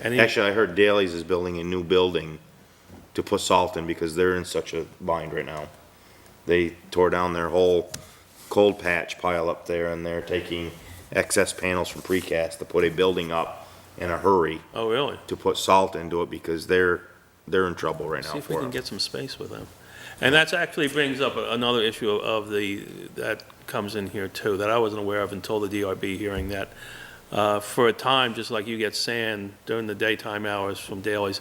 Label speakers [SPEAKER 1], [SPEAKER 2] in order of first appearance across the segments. [SPEAKER 1] Any,
[SPEAKER 2] Actually, I heard Daley's is building a new building to put salt in because they're in such a bind right now. They tore down their whole cold patch pile up there and they're taking excess panels from precast to put a building up in a hurry
[SPEAKER 1] oh, really?
[SPEAKER 2] to put salt into it because they're, they're in trouble right
[SPEAKER 1] See
[SPEAKER 2] now
[SPEAKER 1] if we
[SPEAKER 2] for
[SPEAKER 1] can
[SPEAKER 2] it.
[SPEAKER 1] get some space with them. And that's actually brings up a- another issue of- of the, that comes in here too, that I wasn't aware of until the DRB hearing, that uh, for a time, just like you get sand during the daytime hours from Daley's,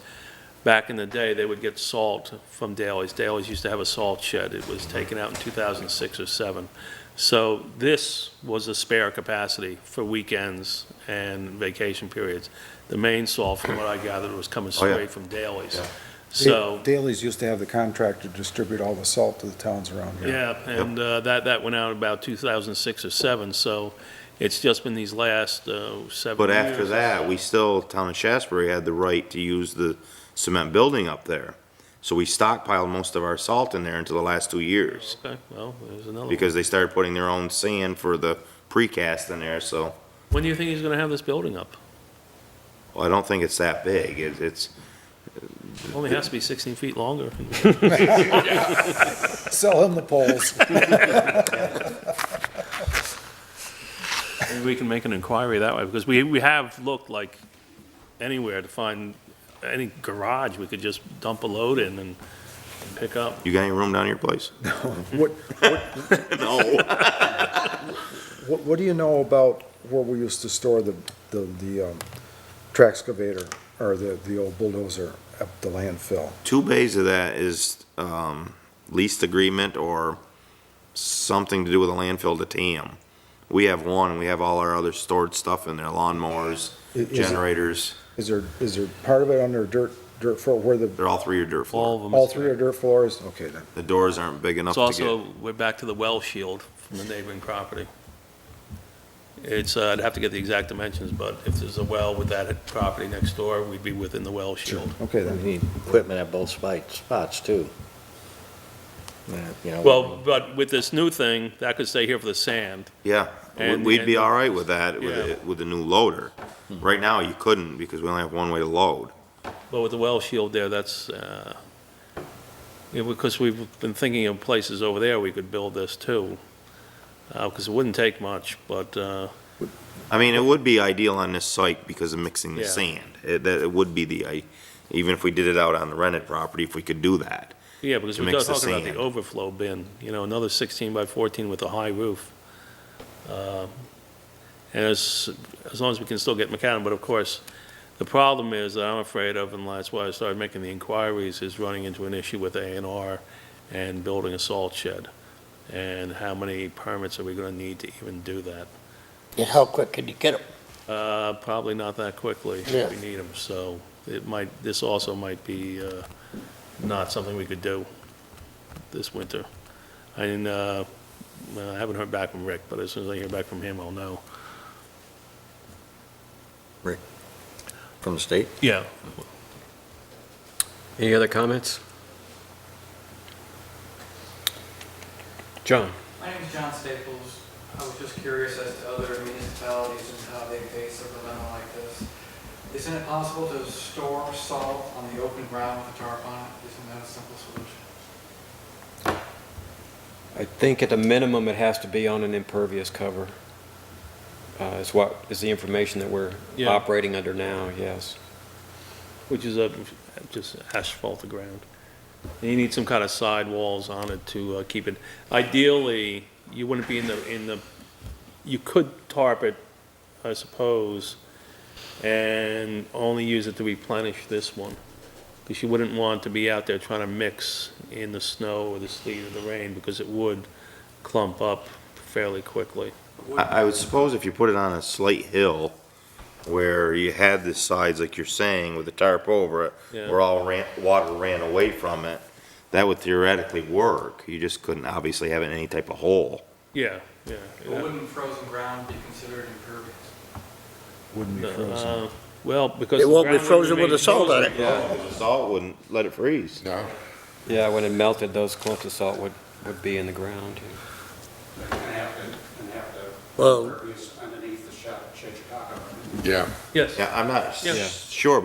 [SPEAKER 1] back in the day, they would get salt from Daley's. Daley's used to have a salt shed. It was taken out in 2006 or 7. So this was a spare capacity for weekends and vacation periods. The main salt, from what I gathered, was coming
[SPEAKER 2] Oh, yeah.
[SPEAKER 1] straight from Daley's.
[SPEAKER 2] Yeah.
[SPEAKER 1] So.
[SPEAKER 3] Daley's used to have the contractor distribute all the salt to the towns around here.
[SPEAKER 1] Yeah, and uh, that, that went out about 2006 or 7, so it's just been these last uh, seven
[SPEAKER 2] But after
[SPEAKER 1] years.
[SPEAKER 2] that, we still, town of Shasbury had the right to use the cement building up there. So we stockpiled most of our salt in there until the last two years.
[SPEAKER 1] Okay, well, there's another one.
[SPEAKER 2] because they started putting their own sand for the precast in there, so
[SPEAKER 1] When do you think he's going to have this building up?
[SPEAKER 2] well, I don't think it's that big. It- It's,
[SPEAKER 1] Only has to be 16 feet longer.
[SPEAKER 3] Sell him the poles.
[SPEAKER 1] Maybe we can make an inquiry that way, because we, we have looked like anywhere to find any garage we could just dump a load in and and pick up.
[SPEAKER 2] you got any room down at your place?
[SPEAKER 3] What,
[SPEAKER 2] No.
[SPEAKER 3] what, what do you know about where we used to store the, the, the, um, track excavator or the, the old bulldozer at the landfill?
[SPEAKER 2] Two bays of that is, um, lease agreement or something to do with a landfill to TAM. We have one, and we have all our other stored stuff in there, lawnmowers,
[SPEAKER 3] I- is it-
[SPEAKER 2] generators,
[SPEAKER 3] Is there, is there part of it under dirt, dirt floor, where the,
[SPEAKER 2] they're all three are dirt floor.
[SPEAKER 1] All of them.
[SPEAKER 3] all three are dirt floors? Okay, then.
[SPEAKER 2] The doors aren't big enough
[SPEAKER 1] It's
[SPEAKER 2] to get,
[SPEAKER 1] also, we're back to the well shield from the neighboring property. It's, uh, I'd have to get the exact dimensions, but if there's a well with that property next door, we'd be within the well shield.
[SPEAKER 3] Okay, then.
[SPEAKER 4] We need equipment at both spite- spots, too. Yeah, You know.
[SPEAKER 1] Well, but with this new thing, that could stay here for the sand.
[SPEAKER 2] yeah. we-
[SPEAKER 1] And-
[SPEAKER 2] We'd be
[SPEAKER 1] and-
[SPEAKER 2] all right with that, with,
[SPEAKER 1] Yeah. Hmm.
[SPEAKER 2] it- with the new loader. Right now, you couldn't, because we only have one way to load.
[SPEAKER 1] But with the well shield there, that's, uh, you know, because we've been thinking of places over there we could build this too. Uh, because it wouldn't take much, but, uh,
[SPEAKER 2] I mean, it would be ideal on this site because of mixing the
[SPEAKER 1] Yeah.
[SPEAKER 2] sand. It, that, it would be the, I, even if we did it out on the rented property, if we could do that.
[SPEAKER 1] yeah, because
[SPEAKER 2] To
[SPEAKER 1] we're
[SPEAKER 2] mix the
[SPEAKER 1] talking about the
[SPEAKER 2] sand.
[SPEAKER 1] overflow bin, you know, another sixteen by fourteen with a high roof. Uh, And as, as long as we can still get macadam, but of course, the problem is that I'm afraid of, and that's why I started making the inquiries, is running into an issue with A and R and building a salt shed. And how many permits are we gonna need to even do that?
[SPEAKER 4] Yeah, How quick could you get it?
[SPEAKER 1] Uh, probably not that quickly,
[SPEAKER 4] Yeah.
[SPEAKER 1] if we need them, so it might, this also might be, uh, not something we could do this winter. I didn't, uh, well, I haven't heard back from Rick, but as soon as I hear back from him, I'll know.
[SPEAKER 4] From the state?
[SPEAKER 1] Yeah.
[SPEAKER 5] Any other comments? John?
[SPEAKER 6] My name's John Staples. I was just curious as to other municipalities and how they face a dilemma like this. Isn't it possible to store salt on the open ground with a tarp on it? Isn't that a simple solution?
[SPEAKER 5] I think at the minimum, it has to be on an impervious cover. Uh, Is what, is the information that we're
[SPEAKER 1] Yeah.
[SPEAKER 5] operating under now, yes.
[SPEAKER 1] Which is a, just asphalt the ground. And you need some kind of side walls on it to, uh, keep it, ideally, you wouldn't be in the, in the, you could tarp it, I suppose, and only use it to replenish this one. Because you wouldn't want to be out there trying to mix in the snow or the sleet or the rain, because it would clump up fairly quickly.
[SPEAKER 2] I, I would suppose if you put it on a slight hill where you had the sides, like you're saying, with the tarp over it,
[SPEAKER 1] Yeah.
[SPEAKER 2] where all ran, water ran away from it, that would theoretically work. You just couldn't obviously have it in any type of hole.
[SPEAKER 1] Yeah, yeah. yeah.
[SPEAKER 6] But wouldn't frozen ground be considered impervious?
[SPEAKER 3] Wouldn't be frozen.
[SPEAKER 1] Uh, Well, because.
[SPEAKER 4] It
[SPEAKER 1] the
[SPEAKER 4] won't be
[SPEAKER 1] ground wouldn't
[SPEAKER 4] frozen with
[SPEAKER 1] remain
[SPEAKER 4] the salt on
[SPEAKER 1] frozen.
[SPEAKER 4] it.
[SPEAKER 2] The salt wouldn't let it freeze.
[SPEAKER 5] Yeah, when it melted, those clumps of salt would, would be in the ground.
[SPEAKER 7] and have to, and have to,
[SPEAKER 4] Well,
[SPEAKER 7] impervious underneath the shop, Chichicaka.
[SPEAKER 8] Yeah.
[SPEAKER 1] Yes.
[SPEAKER 2] Yeah, I'm not
[SPEAKER 1] Yeah.
[SPEAKER 2] s- sure